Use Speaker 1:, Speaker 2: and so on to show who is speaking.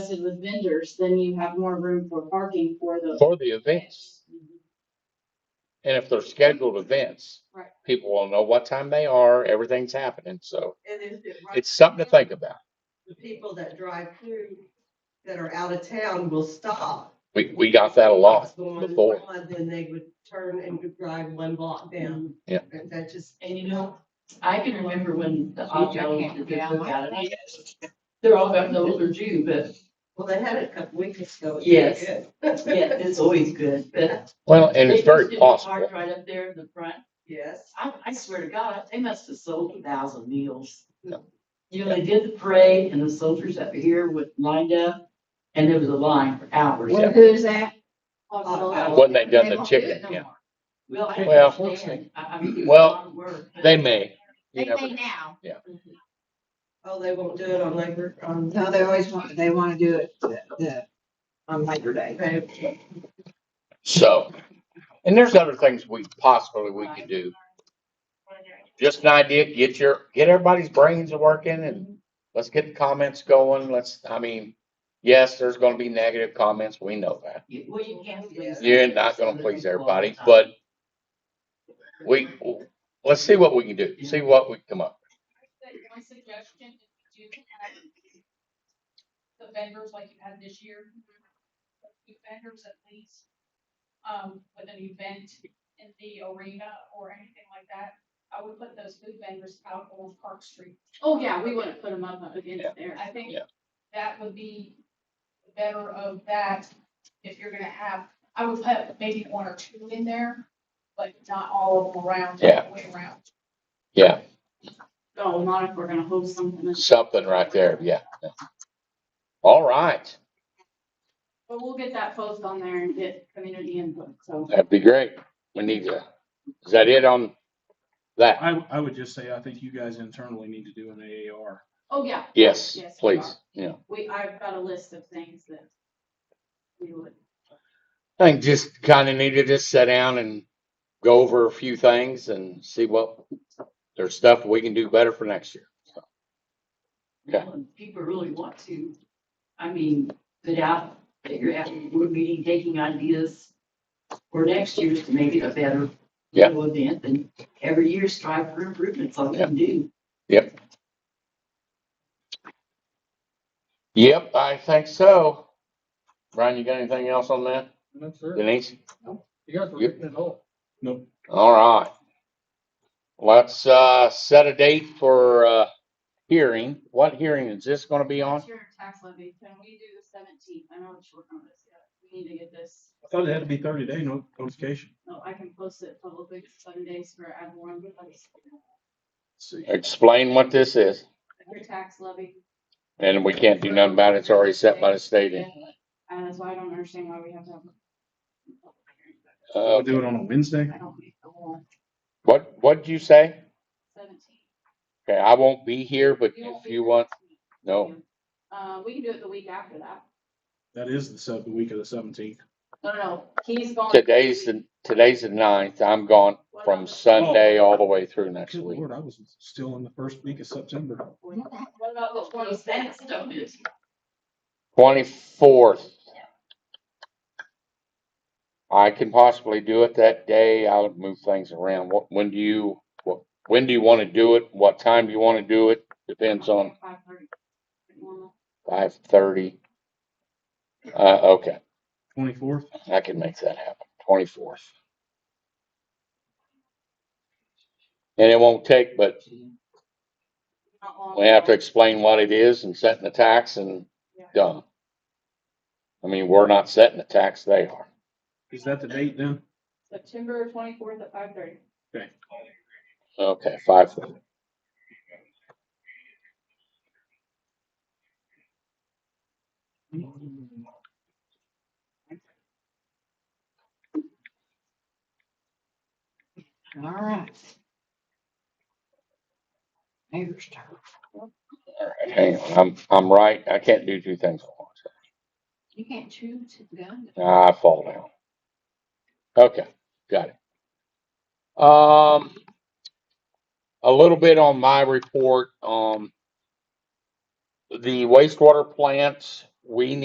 Speaker 1: invested with vendors, then you have more room for parking for the.
Speaker 2: for the events. And if they're scheduled events,
Speaker 1: Right.
Speaker 2: people will know what time they are, everything's happening, so
Speaker 3: And if it runs
Speaker 2: it's something to think about.
Speaker 3: the people that drive through that are out of town will stop.
Speaker 2: We, we got that a lot
Speaker 3: It's going
Speaker 2: before.
Speaker 3: on, Then they would turn and would drive one block down.
Speaker 1: And
Speaker 3: And that just,
Speaker 1: you know,
Speaker 4: I can remember when the
Speaker 5: can't
Speaker 4: autos,
Speaker 5: go
Speaker 4: the
Speaker 5: down
Speaker 4: different got it. They're all about the older Jew, but
Speaker 3: well, they had it a couple weeks ago. It was
Speaker 4: Yes.
Speaker 3: good.
Speaker 4: yeah, it's always good, but.
Speaker 2: Well, and it's
Speaker 4: They just
Speaker 2: very
Speaker 4: did the cart
Speaker 2: possible.
Speaker 4: Right up there in the front.
Speaker 3: Yes.
Speaker 4: I, I swear to God, they must have sold a thousand meals.
Speaker 2: Yeah.
Speaker 4: You know, they did the parade and the soldiers up here would lined up and there was a line for hours.
Speaker 2: Yeah.
Speaker 5: Who's that? Oh,
Speaker 1: uh,
Speaker 2: When they done
Speaker 5: They
Speaker 2: the
Speaker 5: won't do it
Speaker 2: chicken,
Speaker 5: no
Speaker 2: yeah,
Speaker 5: more.
Speaker 4: Well, I
Speaker 2: Well-
Speaker 4: understand. I, I mean.
Speaker 2: Well,
Speaker 4: it's a lot of work, but-
Speaker 2: they may.
Speaker 5: They
Speaker 2: You never,
Speaker 5: may now.
Speaker 3: Oh, they won't do it on Labor, on.
Speaker 5: No, they always want, they want to do it the- the- on Labor Day.
Speaker 2: so, and there's other things we possibly we could do. Just an idea, get your, get everybody's brains working and let's get the comments going. Let's, I mean, yes, there's gonna be negative comments, we know that.
Speaker 4: You- Well, you can't. please
Speaker 2: You're not gonna
Speaker 4: everybody.
Speaker 2: please everybody, but we, let's see what we can do, see what we can come up.
Speaker 6: My suggestion is to do have the vendors like you had this year. Do vendors at least, um, with an event in the arena or anything like that. I would put those food vendors out on Park Street.
Speaker 1: Oh, yeah, we wouldn't put them up against
Speaker 2: Yeah.
Speaker 1: there.
Speaker 6: I think
Speaker 2: Yeah.
Speaker 6: that would be better of that if you're gonna have, I would put maybe one or two in there, but not all of them around, all the way around.
Speaker 2: Yeah,
Speaker 1: Oh, not if we're gonna hold something. that's-
Speaker 2: something right there, yeah. All right,
Speaker 1: But we'll get that post on there and get community input, so.
Speaker 2: that'd be great. We need to, is that it on that?
Speaker 7: I, I would just say, I think you guys internally need to do an AAR.
Speaker 1: Oh, yeah,
Speaker 2: Yes,
Speaker 1: Yes, we
Speaker 2: please,
Speaker 1: are.
Speaker 2: yeah.
Speaker 1: we, I've got a list of things that we would.
Speaker 2: I think just kinda need to just sit down and go over a few things and see what, there's stuff we can do better for next year. Yeah.
Speaker 4: Well, if People really want to, I mean, put out that you're at a board meeting, taking ideas for next year's to make it a better
Speaker 2: Yeah.
Speaker 4: little event and every year strive for improvements on what you do.
Speaker 2: Yep, I think so. Brian, you got anything else on that?
Speaker 7: No, sir.
Speaker 2: Denise?
Speaker 7: You guys
Speaker 2: were hitting
Speaker 7: it all. No.
Speaker 2: All right. Let's, uh, set a date for, uh, hearing. What hearing is this gonna be on?
Speaker 1: It's your tax levy, can we do the seventeenth? I know it's short notice, yeah, we need to get this,
Speaker 7: I thought it had to be thirty day no- notification.
Speaker 1: no, I can post it publicly seven days for everyone, but it's
Speaker 7: See.
Speaker 2: Explain what this is,
Speaker 1: your tax levy.
Speaker 2: and we can't do nothing about it. It's already set by the state.
Speaker 1: And that's why Uh, I don't understand why we have to have.
Speaker 2: Uh, Oh,
Speaker 7: We'll do it on a Wednesday.
Speaker 1: I don't make the law.
Speaker 2: what, what'd you say?
Speaker 1: Seventeen.
Speaker 2: Okay, I won't be here, but
Speaker 1: You won't
Speaker 2: if
Speaker 1: be
Speaker 2: you
Speaker 1: here
Speaker 2: want,
Speaker 1: next week.
Speaker 2: no,
Speaker 1: Uh, we can do it the week after that.
Speaker 7: That is the sub, the week of the seventeenth.
Speaker 1: No, no, no, he's going.
Speaker 2: today's the, today's the ninth. I'm gone
Speaker 1: What
Speaker 2: from
Speaker 1: about the-
Speaker 2: Sunday all the way through next
Speaker 7: Good
Speaker 2: week.
Speaker 7: lord, I was still in the first week of September.
Speaker 1: What about the
Speaker 4: Well,
Speaker 1: twenty-sixth?
Speaker 4: don't it?
Speaker 2: Twenty-fourth. I can possibly do it that day. I'll move things around. What, when do you, what, when do you want to do it? What time do you want to do it? Depends on
Speaker 1: Five thirty. Normal.
Speaker 2: five thirty. Uh, okay,
Speaker 7: Twenty fourth,
Speaker 2: I can make that happen, twenty-fourth. And it won't take, but
Speaker 1: Not long.
Speaker 2: we have to explain what it is and setting the tax and
Speaker 1: Yeah.
Speaker 2: done. I mean, we're not setting the tax, they are.
Speaker 7: is that the date then?
Speaker 1: September twenty-fourth at five thirty.
Speaker 2: Okay, five thirty.
Speaker 5: All right. Mayor's turn.
Speaker 2: All right, hang on. I'm, I'm right. I can't do two things at once.
Speaker 5: You can't choose to go.
Speaker 2: I fall down. Okay, got it. Um, a little bit on my report, um, the wastewater plants, we